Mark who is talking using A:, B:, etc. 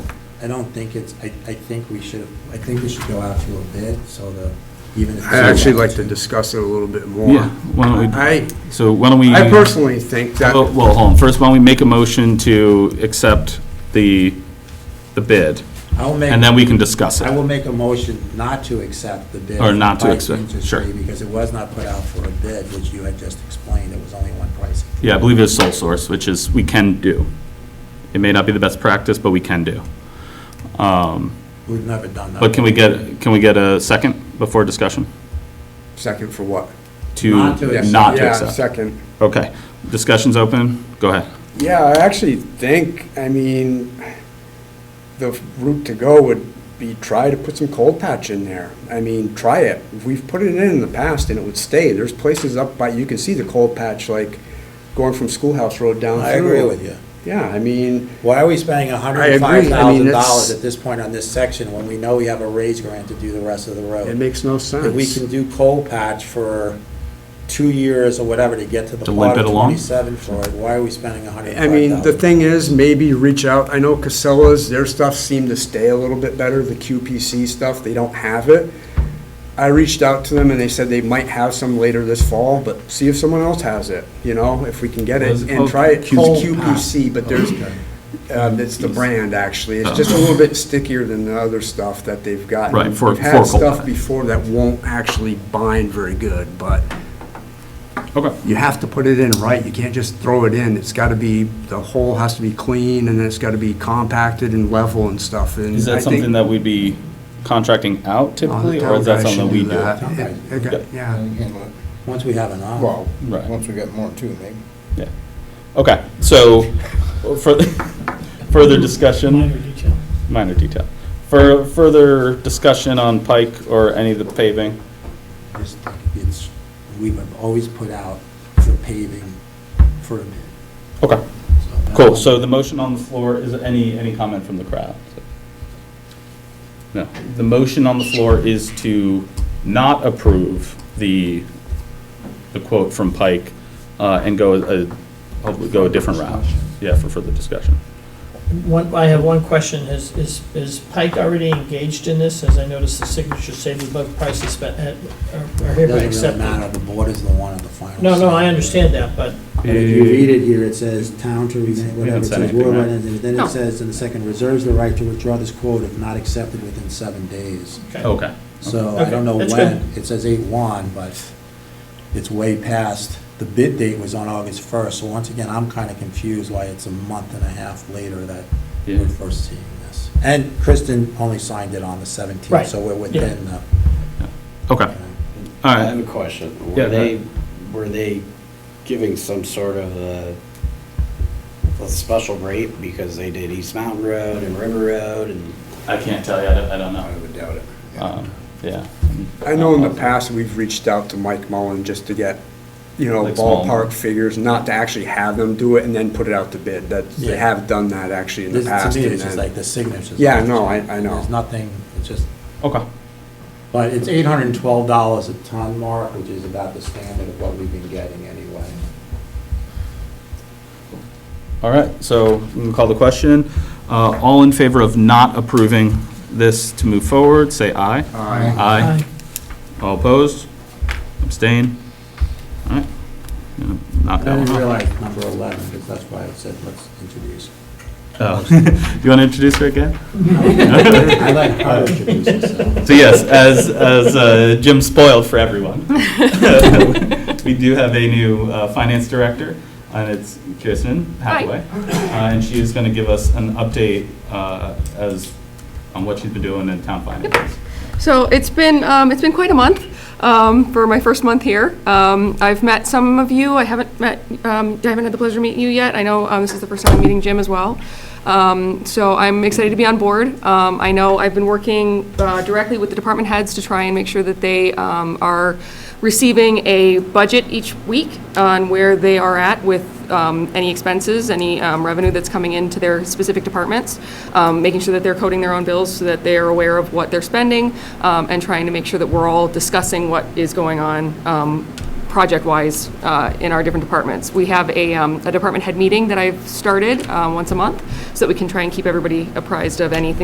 A: I don't think it's, I, I think we should, I think we should go out to a bid, so the, even if.
B: I'd actually like to discuss it a little bit
C: Yeah,
B: more.
C: why don't we,
B: I,
C: so why don't we?
B: I personally think that,
C: Well, well, hold on, first why don't we make a motion to accept the, the bid,
A: I'll make,
C: and then we can discuss
A: I
C: it.
A: will make a motion not to accept the bid.
C: Or not
A: for the
C: to
A: bike
C: accept,
A: industry,
C: sure.
A: Because it was not put out for a bid, which you had just explained, it was only one price.
C: Yeah, I believe it's sole source, which is, we can do. It may not be the best practice, but we can do. Um,
A: We've never done that.
C: But can we get, can we get a second before discussion?
B: second for what?
C: To
A: Not to accept.
C: not to
B: Yeah,
C: accept?
B: Second.
C: Okay, discussion's open, go ahead.
B: Yeah, I actually think, I mean, the route to go would be try to put some cold patch in there. I mean, try it. We've put it in in the past and it would stay. There's places up by, you can see the cold patch, like going from Schoolhouse Road down through.
A: I agree with you.
B: Yeah, I mean,
A: Why are we spending
B: I
A: hundred and
B: agree.
A: five
B: I mean,
A: thousand
B: it's-
A: dollars at this point on this section when we know we have a raise grant to do the rest of the
B: it
A: road?
B: makes no sense.
A: If we can do coal patch for two years or whatever to get to the
C: To limp
A: part of
C: it along?
A: twenty-seven for it, why are we spending a hundred
B: I
A: and
B: mean,
A: five
B: the
A: thousand?
B: thing is, maybe reach out, I know Casella's, their stuff seemed to stay a little bit better, the QPC stuff, they don't have it. I reached out to them and they said they might have some later this fall, but see if someone else has it, you know, if we can get
C: Was
B: it
C: it
B: and
C: called
B: try it. It's
C: Cold
B: QPC, but there's, um, it's the brand actually, it's just a little bit stickier than the other stuff that they've gotten.
C: Uh-huh. Right, for-
B: We've
C: for
B: had
C: cold
B: stuff
C: pack.
B: before that won't actually bind very good, but
C: Okay.
B: you have to put it in right, you can't just throw it in, it's gotta be, the hole has to be clean, and it's gotta be compacted and level and stuff, and
C: Is
B: I
C: that
B: think-
C: something that we'd be contracting out
B: Oh, the
C: typically, or is that
B: town uh, guy
C: something
B: should
C: we
B: do
C: do?
B: that.
A: Town guy.
B: Yeah, okay, Yeah,
D: And handle it.
A: Once we have an offer.
D: Well,
C: Right.
D: once we get more too, maybe.
C: Yeah. Okay, so further, further discussion? Minor detail. Minor detail. For further discussion on Pike or any of the paving?
A: It's- It's, we've always put out for paving for a bid.
C: Okay,
A: so
C: cool.
A: that's-
C: So the motion on the floor, is there any, any comment from the crowd? No. The motion on the floor is to not approve the, the quote from Pike uh, and go a, hopefully go a different route. Yeah, for further discussion.
E: One, I have one question, is, is, is Pike already engaged in this, as I noticed the signature saved above prices, but, uh, are are
A: It
E: hereby
A: Doesn't really
E: accepted?
A: matter, the board is the one at the final.
E: No, no, I
A: say.
E: understand that, but,
A: And if you read it here, it says town to remain, whatever, it
C: said
A: says
C: anything,
A: Warren,
C: right?
A: and then
E: No.
A: it says in the second, reserves the right to withdraw this quote if not accepted within seven days.
E: okay.
C: Okay.
A: So I don't know
E: Okay, that's
A: when, it says eight one, but it's way past, the bid date was on August first, so once again, I'm kinda confused why it's a month and a half later that
C: Yeah.
A: we're first seeing this. And Kristen only signed it on the seventeenth,
E: Right,
A: so we're within the,
C: Okay, all
F: I
C: right.
F: have a question.
C: Yeah,
F: Were
C: go
F: they,
C: ahead.
F: were they giving some sort of a, a special rate because they did East Mountain Road and River Road and?
C: I can't tell you, I don't, I don't
F: I
C: know.
F: would doubt it.
C: Um, Yeah. Um,
B: I know in the past, we've reached out to Mike Mullen just to get, you know,
C: Like small-
B: ballpark figures, not to actually have them do it and then put it out to bid, that, they
A: Yeah.
B: have done that actually in the
A: this,
B: past.
A: to me,
B: and
A: it's just
B: then-
A: like the signatures.
B: Yeah, no, I, I know.
A: There's nothing, it's just,
C: Okay,
A: but it's eight hundred and twelve dollars a ton mark, which is about the standard of what we've been getting anyway.
C: all right, so we can call the question. Uh, All in favor of not approving this to move forward, say aye.
B: Aye.
C: Aye. All opposed? Abstain? All right. Gonna Knock
A: I
C: that
A: didn't
C: one off.
A: realize number 11, because that's why I said let's introduce.
C: Oh. Do you want to introduce her again?
A: I like how to introduce this.
C: So yes, as, as uh, Jim spoiled for everyone, we do have a new uh, finance director, and it's Kirsten Hathaway. Uh, And she is going to give us an update uh, as, on what she's been doing in town finances.
G: So it's been, um, it's been quite a month um, for my first month here. Um, I've met some of you, I haven't met, um, I haven't had the pleasure of meeting you yet. I know um, this is the first time I'm meeting Jim as well. Um, So I'm excited to be on board. Um, I know I've been working uh, directly with the department heads to try and make sure that they um, are receiving a budget each week on where they are at with um, any expenses, any um, revenue that's coming into their specific departments, um, making sure that they're coding their own bills so that they are aware of what they're spending, um, and trying to make sure that we're all discussing what is going on um, project-wise uh, in our different departments. We have a um, a department head meeting that I've started uh, once a month, so that we can try and keep everybody apprised of anything